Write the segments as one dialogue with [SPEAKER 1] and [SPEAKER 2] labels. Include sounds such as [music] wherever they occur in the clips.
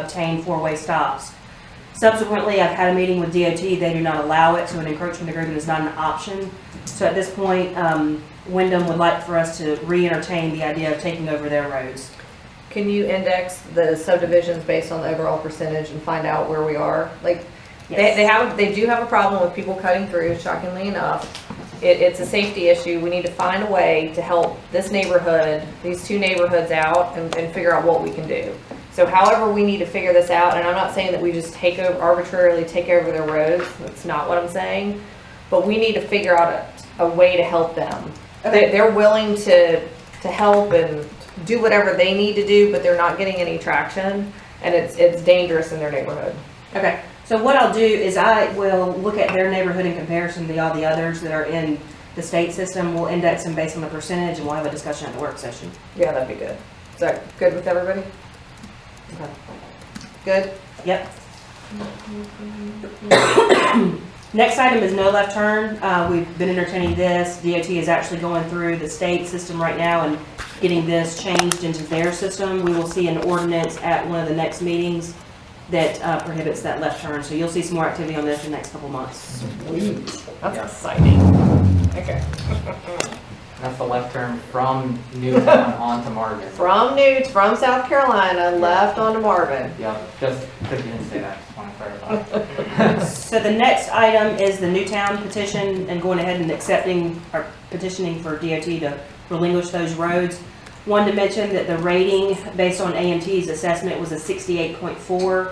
[SPEAKER 1] obtain four-way stops. Subsequently, I've had a meeting with DOT, they do not allow it, so an encroachment agreement is not an option. So at this point, um, Wyndham would like for us to re-entertain the idea of taking over their roads.
[SPEAKER 2] Can you index the subdivisions based on the overall percentage and find out where we are? Like, they,
[SPEAKER 1] Yes.
[SPEAKER 2] they have, they do have a problem with people cutting through, shockingly enough. It, it's a safety issue. We need to find a way to help this neighborhood, these two neighborhoods out and, and figure out what we can do. So however we need to figure this out, and I'm not saying that we just take over, arbitrarily take over their roads, that's not what I'm saying. But we need to figure out a, a way to help them. They, they're willing to, to help and do whatever they need to do, but they're not getting any traction. And it's, it's dangerous in their neighborhood.
[SPEAKER 1] Okay, so what I'll do is I will look at their neighborhood in comparison to all the others that are in the state system. We'll index them based on the percentage and we'll have a discussion at the work session.
[SPEAKER 2] Yeah, that'd be good. Is that good with everybody? Okay. Good?
[SPEAKER 1] Yep. Next item is no left turn. Uh, we've been entertaining this. DOT is actually going through the state system right now and getting this changed into their system. We will see an ordinance at one of the next meetings that uh, prohibits that left turn. So you'll see some more activity on this in the next couple months.
[SPEAKER 2] That's exciting. Okay.
[SPEAKER 3] That's the left turn from
[SPEAKER 1] [laughs]
[SPEAKER 3] Newtown onto Marvin.
[SPEAKER 2] From Newt, from South Carolina, left onto Marvin.
[SPEAKER 3] Yeah, just, because you didn't say that, just want to clarify.
[SPEAKER 1] So the next item is the Newtown petition and going ahead and accepting or petitioning for DOT to relinquish those roads. Wanted to mention that the rating based on AMT's assessment was a sixty-eight point four.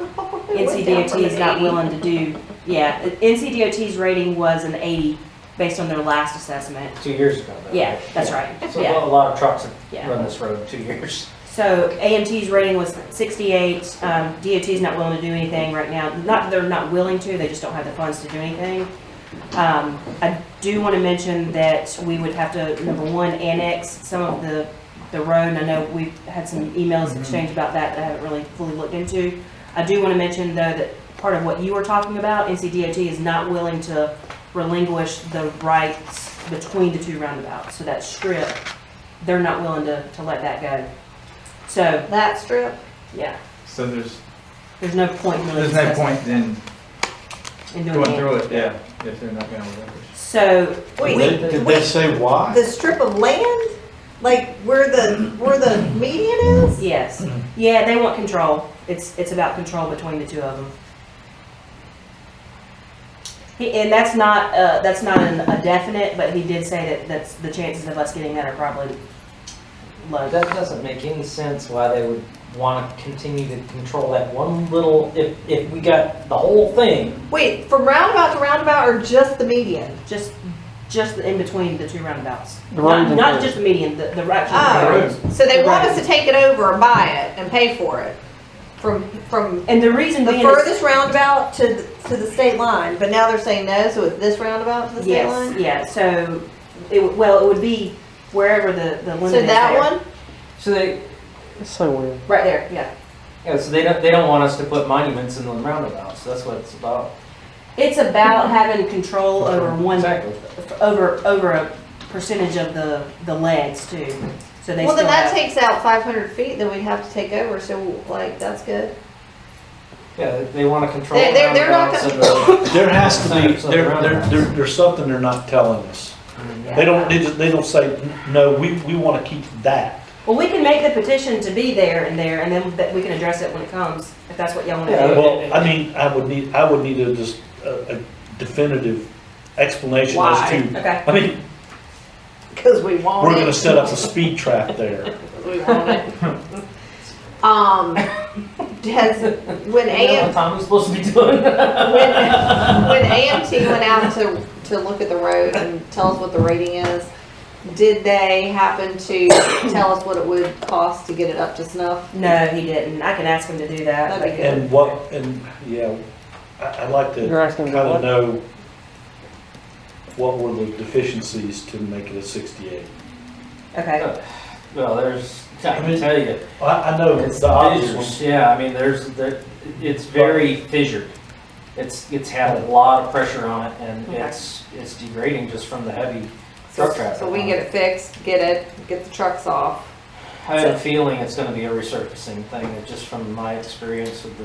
[SPEAKER 1] NCDOT is not willing to do, yeah, NCDOT's rating was an eighty based on their last assessment.
[SPEAKER 4] Two years ago. though,
[SPEAKER 1] Yeah, that's right,
[SPEAKER 4] So a
[SPEAKER 1] yeah,
[SPEAKER 4] lot- a lot of trucks have
[SPEAKER 1] yeah.
[SPEAKER 4] run this road two [laughs] years.
[SPEAKER 1] So AMT's rating was sixty-eight, um, DOT's not willing to do anything right now, not that they're not willing to, they just don't have the funds to do anything. Um, I do wanna mention that we would have to, number one, annex some of the, the road, and I know we've had some emails exchanged about that that I haven't really fully looked into. I do wanna mention though that part of what you were talking about, NCDOT is not willing to relinquish the rights between the two roundabouts, so that strip, they're not willing to, to let that go. So,
[SPEAKER 2] That strip?
[SPEAKER 1] yeah,
[SPEAKER 5] So there's,
[SPEAKER 1] there's no point really
[SPEAKER 5] there's no
[SPEAKER 1] discussing
[SPEAKER 5] point in
[SPEAKER 1] in doing
[SPEAKER 5] going
[SPEAKER 1] that.
[SPEAKER 5] through it, yeah, if they're not gonna relinquish.
[SPEAKER 1] So,
[SPEAKER 6] Wait, did they say why?
[SPEAKER 7] the strip of land, like where the, where the median is?
[SPEAKER 1] Yes.
[SPEAKER 5] Mm-hmm.
[SPEAKER 1] Yeah, they want control. It's, it's about control between the two of them. He, and that's not, uh, that's not an, a definite, but he did say that, that's, the chances of us getting that are probably low.
[SPEAKER 4] That doesn't make any sense why they would want to continue to control that one little, if, if we got the whole thing.
[SPEAKER 7] Wait, from roundabout to roundabout or just the median?
[SPEAKER 1] Just, just in between the two roundabouts.
[SPEAKER 6] The round
[SPEAKER 1] Not,
[SPEAKER 6] and
[SPEAKER 1] not
[SPEAKER 6] the-
[SPEAKER 1] just the median, the, the right.
[SPEAKER 2] Oh.
[SPEAKER 5] The roads.
[SPEAKER 2] So they want us to take it over and buy it and pay for it. From, from
[SPEAKER 1] And the reason
[SPEAKER 7] The
[SPEAKER 1] being is-
[SPEAKER 7] furthest roundabout to, th- to the state line, but now they're saying no, so it's this roundabout to the state
[SPEAKER 1] Yes,
[SPEAKER 7] line?
[SPEAKER 1] yeah, so, it, would- well, it would be wherever the, the limit is
[SPEAKER 7] So that
[SPEAKER 1] there.
[SPEAKER 7] one?
[SPEAKER 4] So they,
[SPEAKER 6] It's so weird.
[SPEAKER 1] Right there, yeah.
[SPEAKER 4] yeah, so they don't, they don't want us to put monuments in the roundabouts, that's what it's about.
[SPEAKER 1] It's about having control over one
[SPEAKER 4] Exactly.
[SPEAKER 1] over, over a percentage of the, the legs too, so they
[SPEAKER 7] Well,
[SPEAKER 1] still
[SPEAKER 7] then that
[SPEAKER 1] have.
[SPEAKER 7] takes out five hundred feet that we'd have to take over, so like, that's good.
[SPEAKER 4] Yeah, they want to control
[SPEAKER 7] They- they're- they're not
[SPEAKER 4] roundabouts and the.
[SPEAKER 6] There has to be,
[SPEAKER 4] Something
[SPEAKER 6] there,
[SPEAKER 4] around
[SPEAKER 6] there,
[SPEAKER 4] that.
[SPEAKER 6] there- there's something they're not telling us.
[SPEAKER 3] Mm-hmm.
[SPEAKER 1] Yeah.
[SPEAKER 7] [laughs]
[SPEAKER 6] They don't, they just, they don't say, no, we, we wanna keep that.
[SPEAKER 1] Well, we can make the petition to be there and there, and then that we can address it when it comes, if that's what y'all wanna
[SPEAKER 4] Yeah.
[SPEAKER 1] do.
[SPEAKER 6] Well, I mean, I would need, I would need a, just a a definitive explanation as to,
[SPEAKER 1] Okay,
[SPEAKER 6] I mean,
[SPEAKER 2] Cause we want
[SPEAKER 6] we're gonna set up a speed trap there.
[SPEAKER 2] We want
[SPEAKER 6] [laughs]
[SPEAKER 2] it.
[SPEAKER 7] Um, has,
[SPEAKER 1] [coughs]
[SPEAKER 7] when
[SPEAKER 4] You know what
[SPEAKER 7] AM,
[SPEAKER 4] Tom was supposed to be doing?
[SPEAKER 7] when, when AMT went out to, to look at the road and tell us what the rating is, did they happen to tell us what it would cost to get it up to snuff?
[SPEAKER 1] no, he didn't, I can ask him to do that.
[SPEAKER 7] That'd be
[SPEAKER 1] but-
[SPEAKER 6] And what, and, yeah, I, I'd like to
[SPEAKER 8] You're asking
[SPEAKER 6] kind
[SPEAKER 8] about
[SPEAKER 6] of
[SPEAKER 8] what?
[SPEAKER 6] know what were the deficiencies to make it a sixty-eight.
[SPEAKER 1] Okay,
[SPEAKER 4] [laughs] Well, there's, I
[SPEAKER 6] I mean,
[SPEAKER 4] can tell you,
[SPEAKER 6] I, I know
[SPEAKER 4] It's
[SPEAKER 6] the obvious
[SPEAKER 4] fissures,
[SPEAKER 6] ones.
[SPEAKER 4] Yeah, I mean, there's, there- it's very fissured. It's, it's had a lot of pressure on it and
[SPEAKER 1] Okay.
[SPEAKER 4] it's, it's degrading just from the heavy
[SPEAKER 2] So,
[SPEAKER 4] truck traffic.
[SPEAKER 2] so we can get it fixed, get it, get the trucks off.
[SPEAKER 4] I have a feeling it's gonna be a resurfacing thing, just from my experience with the